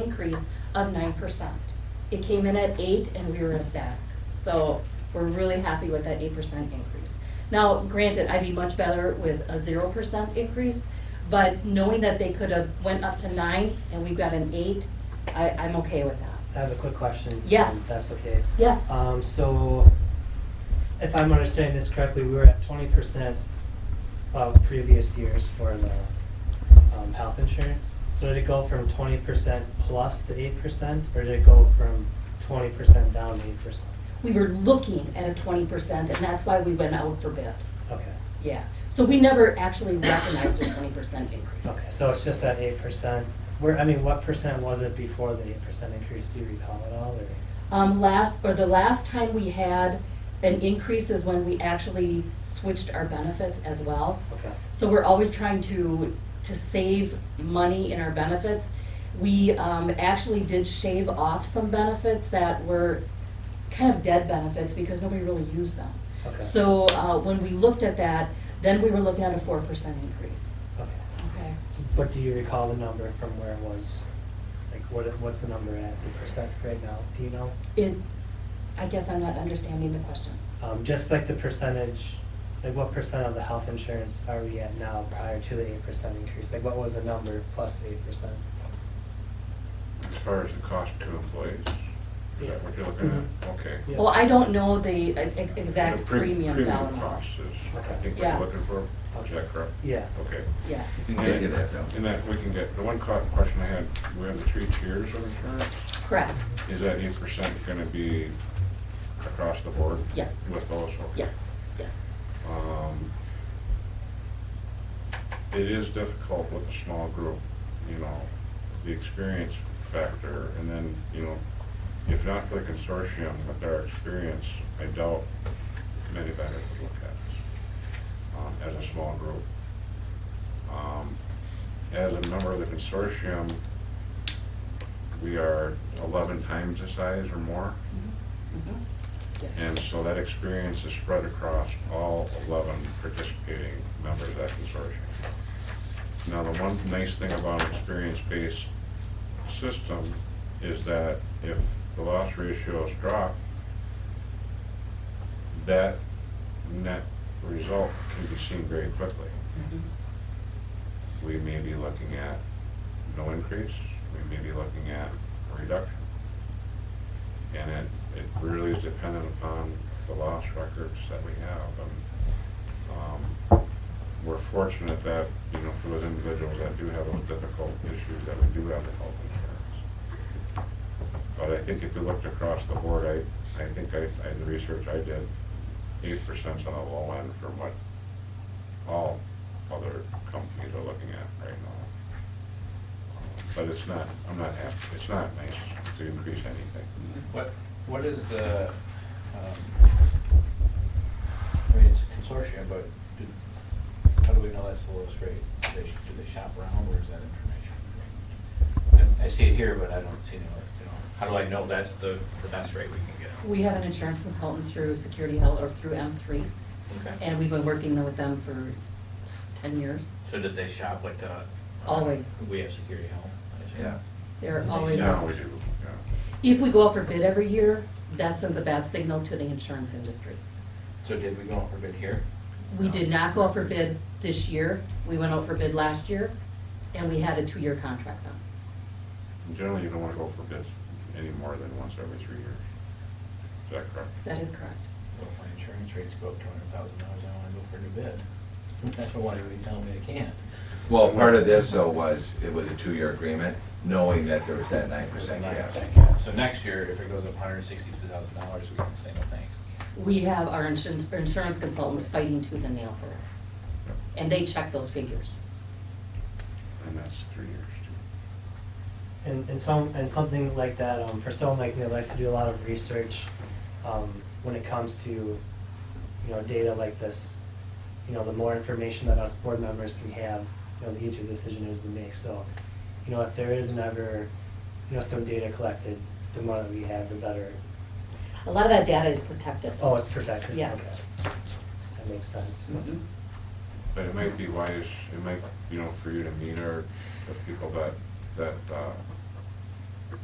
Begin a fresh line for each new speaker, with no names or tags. increase of nine percent. It came in at eight and we were a stack. So we're really happy with that eight percent increase. Now, granted, I'd be much better with a zero percent increase, but knowing that they could have went up to nine and we've got an eight, I, I'm okay with that.
I have a quick question.
Yes.
if That's okay.
Yes,
Um, so if I'm understanding this correctly, we were at twenty percent of previous years for the, um, health insurance. So did it go from twenty percent plus the eight percent, or did it go from twenty percent down to eight percent?
we were looking at a twenty percent and that's why we went out for bid.
Okay,
Yeah, so we never actually recognized a twenty percent increase.
okay, so it's just that eight percent, where, I mean, what percent was it before the eight percent increase, do you recall at all, or?
Um, last, or the last time we had an increase is when we actually switched our benefits as well.
Okay,
So we're always trying to, to save money in our benefits. We, um, actually did shave off some benefits that were kind of dead benefits because nobody really used them.
Okay.
So, uh, when we looked at that, then we were looking at a four percent increase.
okay.
Okay.
So, But do you recall the number from where it was? Like, what, it- what's the number at, the percent right now, do you know?
It, I guess I'm not understanding the question.
Um, just like the percentage, like what percent of the health insurance are we at now prior to the eight percent increase? Like, what was the number plus eight percent?
As far as the cost to employees, is that what you're looking at? Okay.
Mm-hmm. Yeah.
Well, I don't know the e- e-
The
exact
pre-
premium down.
Premium cost is, I
Okay.
think what
Yeah.
you're looking for, is that correct?
Yeah.
Okay.
Yeah,
You can get that down.
And that, we can get, the one co- question I had, we have the three tiers of insurance,
correct,
is that eight percent gonna be across the board?
Yes.
With those, okay.
yes, yes.
Um, It is difficult with a small group, you know, the experience factor, and then, you know, if not for the consortium with their experience, I doubt many vendors would look at this, um, as a small group. Um, As a member of the consortium, we are eleven times the size or more.
Mhm. Yes.
And so that experience is spread across all 11 participating members of that consortium. Now, the one nice thing about an experience-based system is that if the loss ratios drop, that net result can be seen very quickly.
Mhm.
We may be looking at no increase, we may be looking at a reduction. And it, it really is dependent upon the loss records that we have. And, um, we're fortunate that, you know, for those individuals that do have those difficult issues, that we do have the health insurance. But I think if you looked across the board, I, I think I, I, the research I did, eight percent's on the low end from what all other companies are looking at right now. Um, But it's not, I'm not happy, it's not nice to increase
Mm-hmm.
anything.
What, what is the, um, I mean, it's a consortium, but do- how do we know that's the lowest rate? Do they, do they shop around, where's that information? I I see it here, but I don't see it anywhere, you know, how do I know that's the, the best rate we can get?
We have an insurance consultant through Security Health or through M3,
Okay.
and we've been working with them for 10 years.
So did they shop like the? uh,
Always.
We have security health. I assume?
Yeah.
They're
They
always.
Now we do, yeah.
If we go out for bid every year, that sends a bad signal to the insurance industry.
So did we go out for bid here?
We
No.
did not go out for bid this year. We went out for bid last year, and we had a two-year contract on.
Generally, you don't want to go for bids any more than once every three years. Is that correct?
That is correct.
Well, if my insurance rates go up two hundred thousand dollars, I wanna go for a new bid. That's what one of you telling me I can't.
Well, part of this though was, it was a two-year agreement, knowing that there was that nine percent cap.
So next year, if it goes up hundred and sixty-two thousand dollars, we can say no thanks.
We have our insurance, our insurance consultant fighting tooth and nail for us, and they check those figures.
And that's three years too.
And, and some, and something like that, um, for someone like me that likes to do a lot of research, um, when it comes to, you know, data like this, you know, the more information that us board members can have, you know, the easier the decision is to make, so, you know, if there is never, you know, some data collected, the more that we have, the better,
A lot of that data is protected.
oh, it's protected,
Yes.
okay. That makes sense.
Mhm.
But it might be wise, it might, you know, for you to meet our, the people that, that uh,